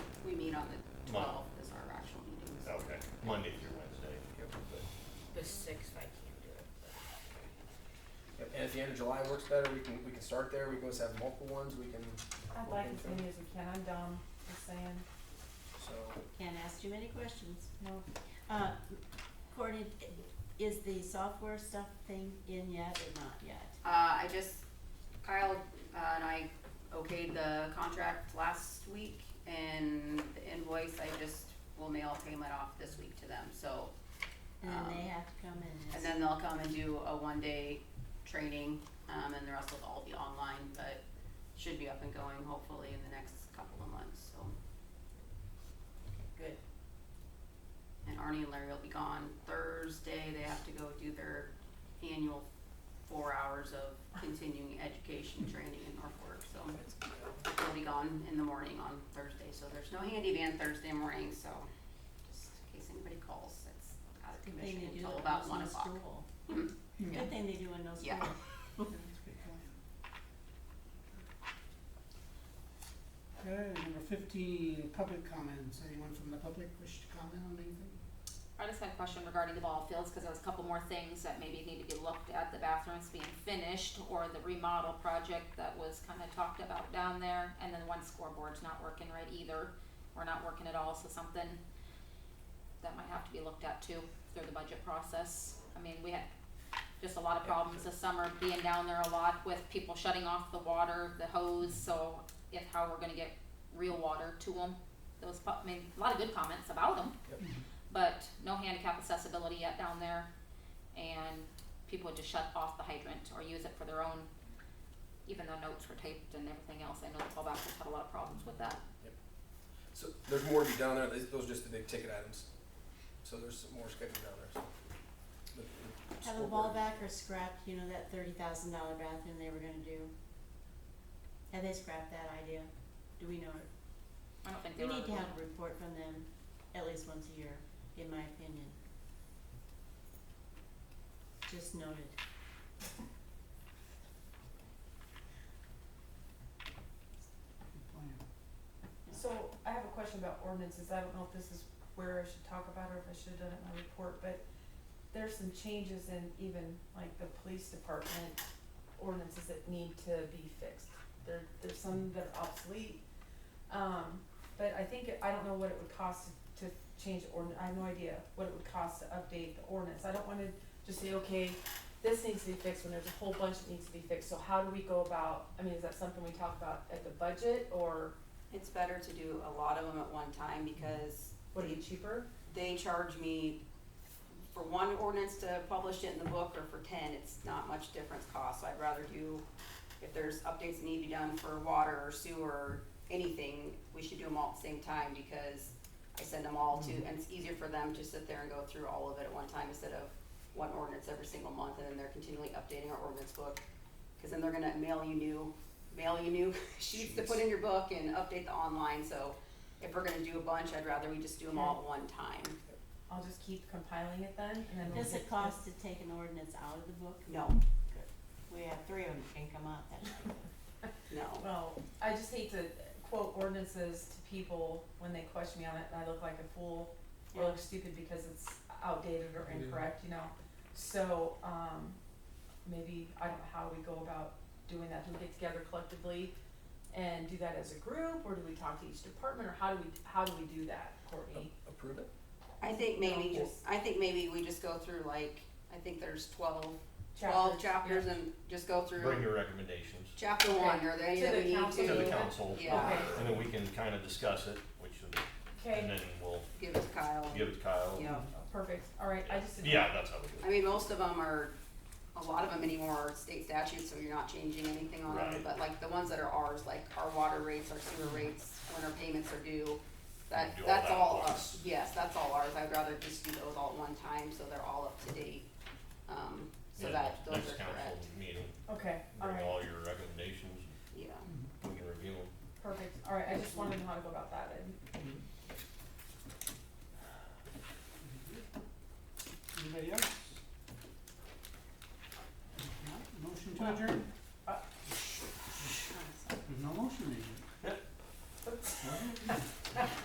Mon- twelve is our actual Uh, meetings. Okay, Monday through Wednesday. But- The sixth, I can't do it. but- And if the end of July works better, we can, we can start there, we can always have multiple ones, we can, I'd like as many as we can, I'm dumb, just saying. so, Can't ask too many questions, no. Uh, Courtney, is the software stuff thing in yet or not yet? Uh, I just, Kyle uh, and I okayed the contract last week and the invoice, I just will mail payment off this week to them, so. And then um, they have to come in And and. then they'll come and do a one-day training, um, and the rest will all be online, but should be up and going hopefully in the next couple of months, so. Good. And Arnie and Larry will be gone Thursday, they have to go do their annual four hours of continuing education training in Norfolk, so. They'll be gone in the morning on Thursday, so there's no handy van Thursday morning, so just in case anybody calls, it's out of Good thing commission they do until it about when one no o'clock. school. Hmm? Yeah. Good thing they do in no Yeah. school. Okay, number fifteen, public comments. Anyone from the public wish to comment on anything? I just had a question regarding the ball fields, cause there was a couple more things that maybe need to be looked at, the bathrooms being finished, or the remodel project that was kinda talked about down there, and then one scoreboard's not working right either, or not working at all, so something that might have to be looked at too, through the budget process, I mean, we had just a lot of problems this summer, being down there a lot with people shutting off the water, the hose, so if, how we're gonna get real water to them, those, pu- I mean, a lot of good comments about them but no handicap accessibility yet down there. And people would just shut off the hydrant or use it for their own, even though notes were taped and everything else. I know the fallbackers had a lot of problems with that. so there's more to be done there, those those are just the big ticket items. So there's some more scheduled down there, so. The- the Have a scoreboard. ball back or scrapped, you know, that thirty thousand dollar bathroom they were gonna do? Have they scrapped that idea? Do we know? I don't think they We were. need to have a report from them at least once a year, in my opinion. Just noted. Good plan. So I have a question about ordinances, I don't know if this is where I should talk about or if I should have done it in my report, but there's some changes in even like the police department ordinances that need to be fixed. There, there's some that are obsolete, um, but I think, it- I don't know what it would cost to change ordinance, I have no idea what it would cost to update the ordinance. I don't wanna just say, okay, this needs to be fixed when there's a whole bunch that needs to be fixed, so how do we go about, I mean, is that something we talk about at the budget or It's better to do a lot of them at one time because would it be cheaper? they charge me for one ordinance to publish it in the book or for ten, it's not much difference cost, so I'd rather do, if there's updates that need to be done for water or sewer, or anything, we should do them all at the same time because I send them all to, and it's easier for them to sit there and go through all of it at one time instead of one ordinance every single month and then they're continually updating our ordinance book. Cause then they're gonna mail you new, mail you new sheets to put in your book and update the online, so if we're gonna do a bunch, I'd rather we just do them all at one time. I'll just keep compiling it then, and then we'll Does get it cost to take an ordinance out of the book? No, We have three of them that can come out, that's no. Well, I just hate to quote ordinances to people when they question me on it, and I look like a fool or look stupid because it's outdated or Yeah. incorrect, you know? So, um, maybe, I don't know how we go about doing that, do we get together collectively and do that as a group, or do we talk to each department, or how do we, how do we do that, Courtney? A- Approve it, I think maybe No. just, I think maybe we just go through like, I think there's twelve, twelve chapters and just go Bring through your recommendations chapter one, are there any To that the we need to? council. to the council. Yeah, Okay. And then we can kind of discuss it, which, and Okay, Oh, then we'll give it to Kyle. give it to Kyle. Yeah. perfect, alright, I just. Yeah, that's how we do it. I mean, most of them are, a lot of them anymore are state statutes, so you're not changing anything on them. Right. Mm-hmm. But like the ones that are ours, like our water rates, our sewer rates, when our payments are due, that, Do all that's that at all, once. us. yes, that's all ours. I'd rather just do those all at one time, so they're all up to date. Um, so Yeah, that, those are Next council correct, meeting, Okay, bring alright. all your recommendations, yeah. we can review them. Perfect, alright, I just wanted to know how to go about that and Anybody else?